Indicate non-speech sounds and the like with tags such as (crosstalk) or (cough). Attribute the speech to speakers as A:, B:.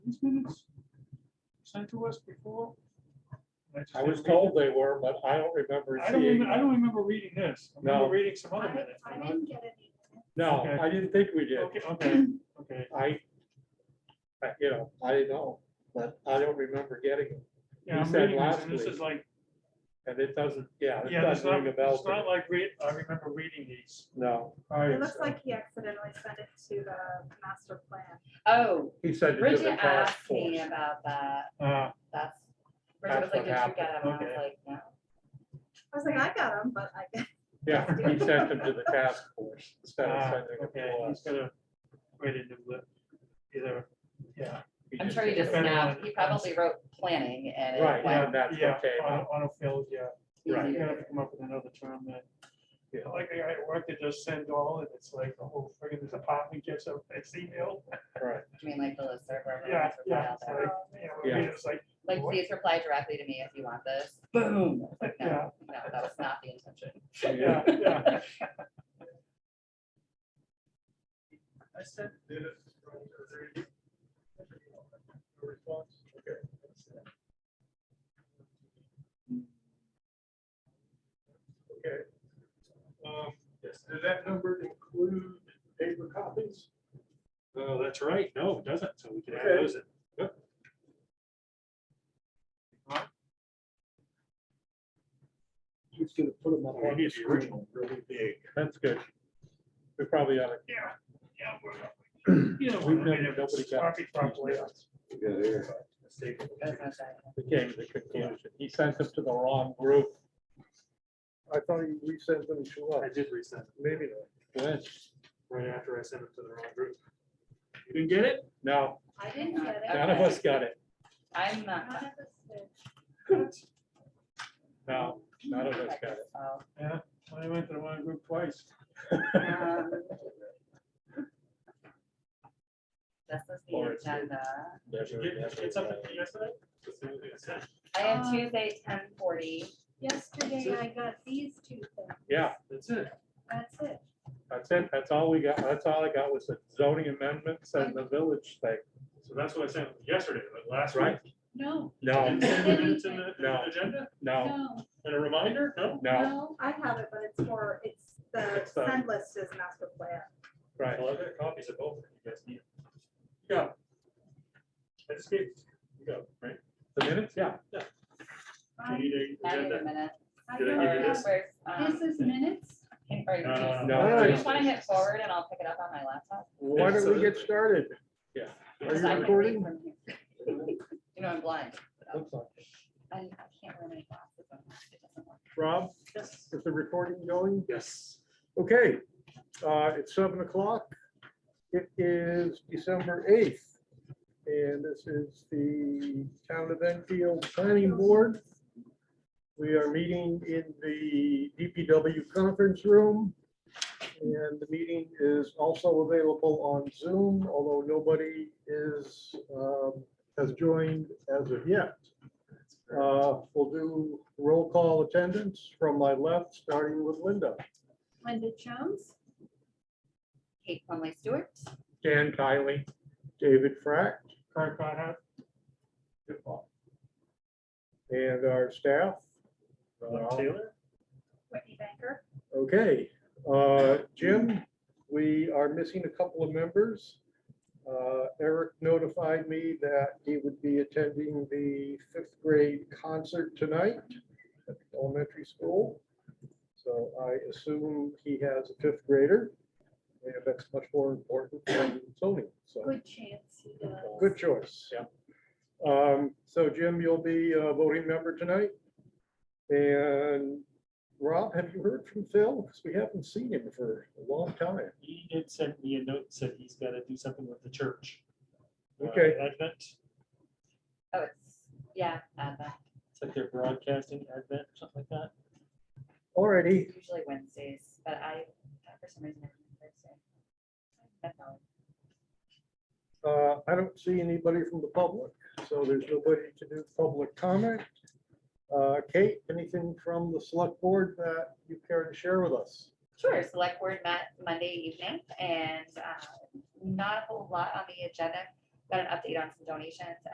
A: these minutes sent to us before? just
B: I was
A: didn't read
B: told they were, but I don't remember
A: them. I don't,
B: seeing.
A: remem- I don't remember reading this. I remember
B: No.
A: reading some other
C: I
A: minutes.
C: I didn't get any.
B: No,
A: Okay.
B: I didn't think we did.
A: Okay, okay, okay.
B: I, I- you know, I don't know, but I don't remember getting it. You
A: Yeah, I'm
B: said
A: reading this,
B: last
A: and this
B: week.
A: is like,
B: And it doesn't, yeah, it
A: yeah, it's
B: doesn't
A: not,
B: ring a bell.
A: it's
B: to me.
A: not like, re- I remember reading these.
B: No.
C: It looks like he accidentally sent it to the master plan.
D: Oh,
B: He said to do
D: Bridget
B: the task
D: asked me
B: force.
D: about that.
A: Uh,
D: That's,
B: That's
D: Bridget was like,
B: what
D: did you
B: happened.
D: get it? And I was
A: Okay.
D: like, no.
C: I was like, I got him, but I guess
B: Yeah, he sent them to the task force instead of
A: ah,
B: sending them
A: Okay,
B: to
A: he's
B: us.
A: gonna wait into the, either, yeah.
D: I'm sure he just
A: depended on
D: snapped.
A: it.
D: He probably wrote planning and it
B: Right,
D: went
B: yeah, that's
A: Yeah,
B: okay.
A: auto- autofills, yeah.
B: Right.
D: easy
A: You
D: to
A: gotta
D: do.
A: come up with another term that,
B: Yeah.
A: like, I I work to just send all, and it's like the whole friggin' this apartment gets a, it's email.
B: Right,
D: I mean, like the listserv or
A: Yeah,
D: whatever.
A: yeah, it's like,
C: Oh,
A: yeah, we read it, it's like,
D: Like,
A: What?
D: please reply directly to me if you want this. Boom. It's like,
A: Yeah.
D: No, no, that was not the intention.
A: yeah,
E: (laughs)
A: yeah. I said.
E: Okay. Um, Yes, does that number include paper copies?
B: Oh, that's right. No, it doesn't. So we
E: can add those
B: it.
E: Just gonna put them
B: on the original,
E: really big.
B: That's good. We probably ought to
A: Yeah, yeah. we're- You know,
B: We've
A: we're
B: never-
A: gonna get
B: nobody
A: it
B: got
A: copied properly.
D: That was my second.
B: We came to the conclusion. He sent them to the wrong group.
E: I thought you resent them to us.
F: I did resend it
E: Maybe not.
B: Good.
F: right after I sent it to the wrong group. You didn't get it?
B: No,
C: I didn't get it.
B: none of us got it.
D: I'm not.
C: None of us did.
B: No, none of us got
D: Oh,
A: I went to the wrong group twice.
B: it. (laughs)
D: um, This is the
B: Or it's-
D: agenda.
B: Never,
F: Did you
B: never,
F: get something from
B: never.
F: yesterday? That's the only thing I sent.
D: I have
C: Um,
D: Tuesday, ten forty.
C: Yesterday, I got these two things.
B: Yeah,
F: That's it.
C: That's it.
B: that's it. That's all we got. That's all I got was the zoning amendments and the village thing.
F: So that's what I sent yesterday, but last week.
B: Right.
C: No,
B: No,
F: Didn't send the minutes in the- in
B: No.
F: the agenda
B: no,
F: and a reminder? No?
B: no,
C: I have it, but it's for, it's the
B: It's, um,
C: send list is master plan.
B: right.
F: Well, I've got copies of both if you guys need. Yeah. I just gave, you go, right?
B: The minutes, yeah.
F: Do
C: I-
F: you need a
D: I need a
F: agenda?
D: minute.
C: I
F: Did I
C: don't
F: give you
D: Or
F: this?
C: have-
D: where's, um,
C: This is minutes.
D: can- or you
F: No, no,
D: can-
B: No.
D: Do
E: no,
D: you
E: no.
D: just want to hit forward and I'll pick it up on my laptop?
E: Why don't we
B: uh,
E: get started?
B: Yeah.
E: Are
D: Because
E: you
D: I can read
E: recording?
D: from here. You know, I'm blind. so
B: Looks like it.
D: I I can't wear my glasses. on. It doesn't work.
E: Rob, is the recording going?
F: Yes.
E: Okay, uh, it's seven o'clock. It is December eighth. And this is the Town of Enfield Planning Board. We are meeting in the DPW conference room. And the meeting is also available on Zoom, although nobody is, um, has joined as of yet. Uh, We'll do roll call attendance from my left, starting with Linda.
C: Linda Jones,
D: Kate Conley Stewart,
B: Dan Kylie,
E: David Frack
A: Card caught out.
E: and our staff.
F: Rob Taylor?
C: Whitney Banker,
E: Okay, uh, Jim, we are missing a couple of members. Uh, Eric notified me that he would be attending the fifth grade concert tonight at the elementary school. So I assume he has a fifth grader. And that's much more important than Tony, so.
C: good chance he does.
E: Good choice.
B: Yeah.
E: Um, so Jim, you'll be a voting member tonight. And Rob, have you heard from Phil? Because we haven't seen him for a long time.
F: He did send me a note, said he's gotta do something with the church. Uh,
E: Okay.
F: Advent,
D: oh, it's, yeah, uh, that-
F: it's like they're broadcasting Advent, something like that.
E: Alrighty,
D: usually Wednesdays, but I, for some reason, I'm Thursday. That's all.
E: uh, I don't see anybody from the public, so there's nobody to do public comment. Uh, Kate, anything from the select board that you care to share with us?
D: Sure, select board met Monday evening and uh, not a whole lot on the agenda. got an update on some donations